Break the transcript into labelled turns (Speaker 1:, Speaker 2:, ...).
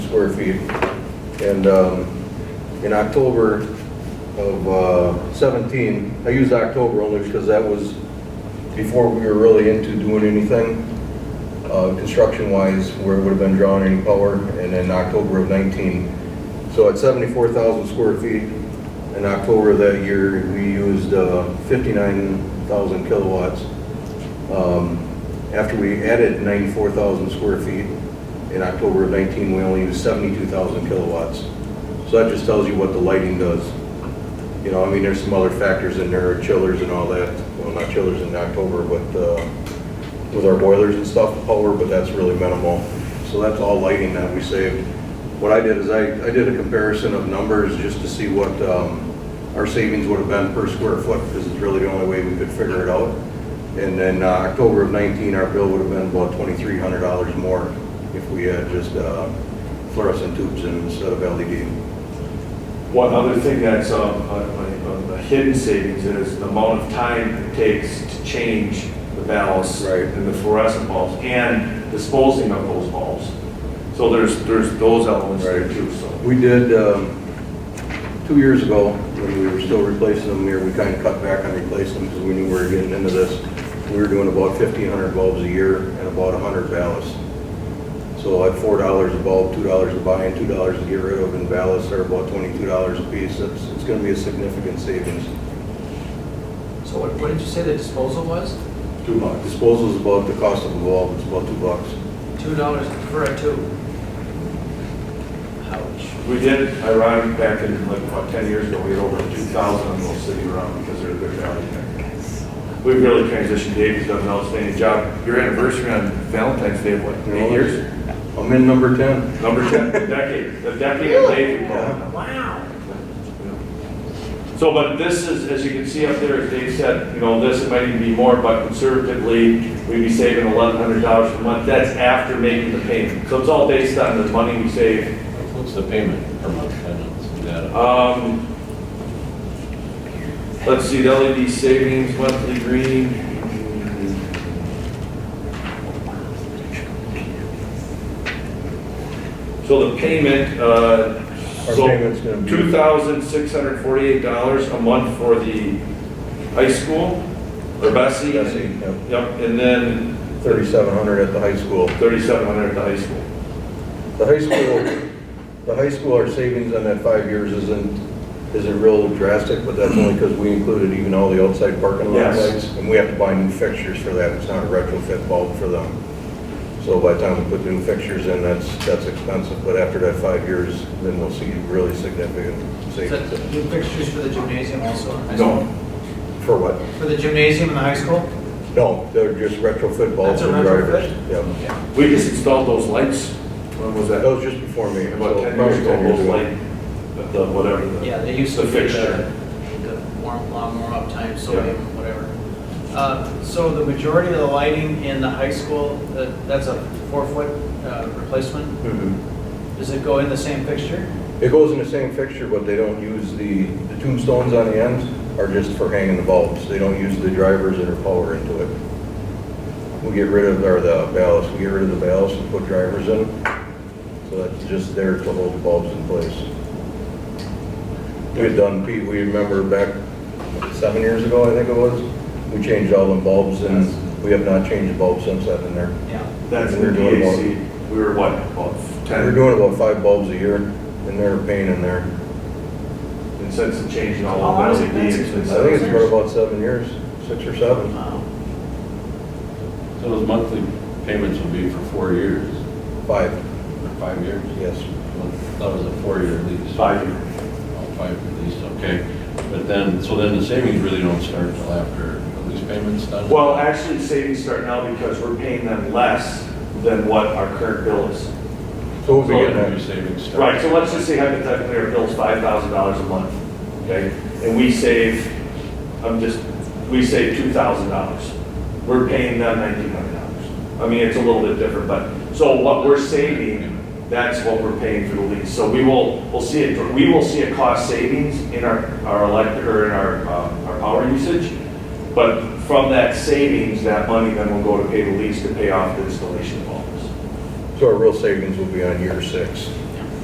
Speaker 1: square feet. And um, in October of uh, 17, I used October only because that was before we were really into doing anything uh, construction-wise, where it would have been drawn any power, and then October of 19. So at 74,000 square feet, in October of that year, we used uh, 59,000 kilowatts. Um, After we added 94,000 square feet in October of 19, we only used 72,000 kilowatts. So that just tells you what the lighting does. You know, I mean, there's some other factors in there, chillers and all that. Well, not chillers in October, but uh, with our boilers and stuff, power, but that's really minimal. So that's all lighting that we saved. What I did is I, I did a comparison of numbers just to see what um, our savings would have been per square foot, because it's really the only way we could figure it out. And then uh, October of 19, our bill would have been about $2,300 more if we had just uh, fluorescent tubes in instead of E LED.
Speaker 2: One other thing that's um, a- a a hidden savings is the amount of time it takes to change the bulbs
Speaker 1: Right.
Speaker 2: and the fluorescent bulbs and disposing of those bulbs. So there's, there's those elements there
Speaker 1: Right.
Speaker 2: too, so.
Speaker 1: We did, um, two years ago, when we were still replacing them here, we kind of cut back on replacing them because we knew we were getting into this. We were doing about 1,500 bulbs a year and about 100 ballasts. So at $4 a bulb, $2 to buy and $2 to get rid of, and ballasts are about $22 a piece. It's, it's going to be a significant savings.
Speaker 3: So what, what did you say the disposal was?
Speaker 1: Two bucks. Disposal's about the cost of a bulb, it's about two bucks.
Speaker 3: Two dollars for a two? Ouch.
Speaker 2: We did, ironic, back in like about 10 years ago, we had over 2,000 of those sitting around because they're, they're valued there. We've really transitioned, Dave's done an outstanding job. Your anniversary on Valentine's Day, what, eight years?
Speaker 1: I'm in number 10.
Speaker 2: Number 10, the decade, the decade of Dave.
Speaker 3: Wow.
Speaker 2: So, but this is, as you can see up there, as Dave said, you know, this, it might even be more, but conservatively, we'd be saving eleven hundred dollars per month. That's after making the payment. So it's all based on the money we save.
Speaker 4: What's the payment per month? I don't see that.
Speaker 2: Um, let's see, the LED savings, monthly green. So the payment, uh.
Speaker 1: Our
Speaker 2: so-
Speaker 1: payment's gonna be-
Speaker 2: Two thousand six hundred forty-eight dollars a month for the high school, or Bessie.
Speaker 1: Bessie, yep.
Speaker 2: Yep, and then
Speaker 1: 3,700 at the high school.
Speaker 2: thirty-seven hundred dollars at the high school.
Speaker 1: The high school, the high school, our savings on that five years isn't, isn't real drastic, but that's only because we included even all the outside parking lot
Speaker 2: Yes.
Speaker 1: lights. And we have to buy new fixtures for that, it's not a retrofit bulb for them. So by the time we put new fixtures in, that's, that's expensive, but after that five years, then we'll see really significant
Speaker 3: Is
Speaker 1: savings.
Speaker 3: that new fixtures for the gymnasium also? in high
Speaker 2: No,
Speaker 1: For what?
Speaker 3: school? For the gymnasium in the high school?
Speaker 1: No, they're just retrofit bulbs
Speaker 3: That's a
Speaker 1: for drivers. Yeah,
Speaker 2: we just installed those lights. When was
Speaker 1: That was just before me.
Speaker 2: About
Speaker 1: so
Speaker 2: ten
Speaker 1: probably
Speaker 2: years ago,
Speaker 1: 10 years
Speaker 2: those
Speaker 1: ago.
Speaker 2: light, the, whatever. the-
Speaker 3: Yeah, they used to.
Speaker 2: The
Speaker 3: be
Speaker 2: fixture.
Speaker 3: The warm, long warm-up time, sodium, whatever. Uh, so the majority of the lighting in the high school, that, that's a four-foot, uh, replacement?
Speaker 1: Mhm.
Speaker 3: Does it go in the same fixture?
Speaker 1: It goes in the same fixture, but they don't use the, the tombstones on the ends are just for hanging the bulbs. They don't use the drivers that are power into it. We get rid of, or the ballast, we get rid of the ballast and put drivers in. So that's just there to hold the bulbs in place. We had done, Pete, we remember back seven years ago, I think it was, we changed all the bulbs and
Speaker 2: Yes.
Speaker 1: we have not changed the bulbs since I've been there.
Speaker 3: Yeah.
Speaker 2: That's
Speaker 1: We
Speaker 2: the
Speaker 1: were doing about-
Speaker 2: DAC, we were what, about
Speaker 1: We're
Speaker 2: ten,
Speaker 1: doing about five bulbs a year and they're a pain in there.
Speaker 2: and since the change in all
Speaker 3: How long
Speaker 2: of
Speaker 3: has
Speaker 2: that,
Speaker 3: it been
Speaker 2: it's
Speaker 3: since
Speaker 2: been
Speaker 1: I think it's
Speaker 2: seven.
Speaker 1: been about seven years, six or seven.
Speaker 3: Wow.
Speaker 4: So those monthly payments will be for four years,
Speaker 1: Five,
Speaker 4: or five years?
Speaker 1: yes.
Speaker 4: That was a four-year lease.
Speaker 2: Five years.
Speaker 4: Oh, five-year lease, okay. But then, so then the savings really don't start until after the lease payment's done?
Speaker 2: Well, actually, savings start now because we're paying them less than what our current bill is.
Speaker 1: So we'll
Speaker 4: So
Speaker 1: be getting
Speaker 4: when your
Speaker 1: that.
Speaker 4: savings start?
Speaker 2: Right, so let's just say hypothetically our bill's five thousand dollars a month, okay? And we save, I'm just, we save two thousand dollars. We're paying them nineteen hundred dollars. I mean, it's a little bit different, but, so what we're saving, that's what we're paying for the lease. So we will, we'll see it, we will see a cost savings in our, our electric, or in our, uh, our power usage. But from that savings, that money then will go to pay the lease to pay off the installation bonus.
Speaker 1: So our real savings will be on year six.